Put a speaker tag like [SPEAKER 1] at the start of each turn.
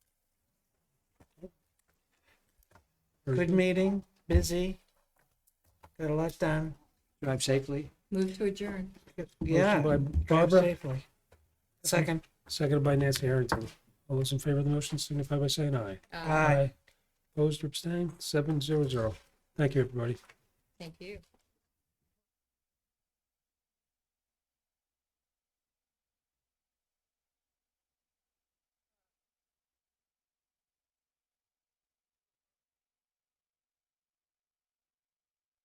[SPEAKER 1] Good meeting, busy. Got a lot done.
[SPEAKER 2] Drive safely.
[SPEAKER 3] Move to adjourn.
[SPEAKER 1] Yeah.
[SPEAKER 4] Motion by
[SPEAKER 1] drive
[SPEAKER 4] Barbara,
[SPEAKER 1] safely. Second.
[SPEAKER 4] seconded by Nancy Harrington. All those in favor of the motion signify by saying aye.
[SPEAKER 3] Uh,
[SPEAKER 1] Aye.
[SPEAKER 4] Opposed or abstained? Seven zero zero. Thank you, everybody.
[SPEAKER 3] Thank you.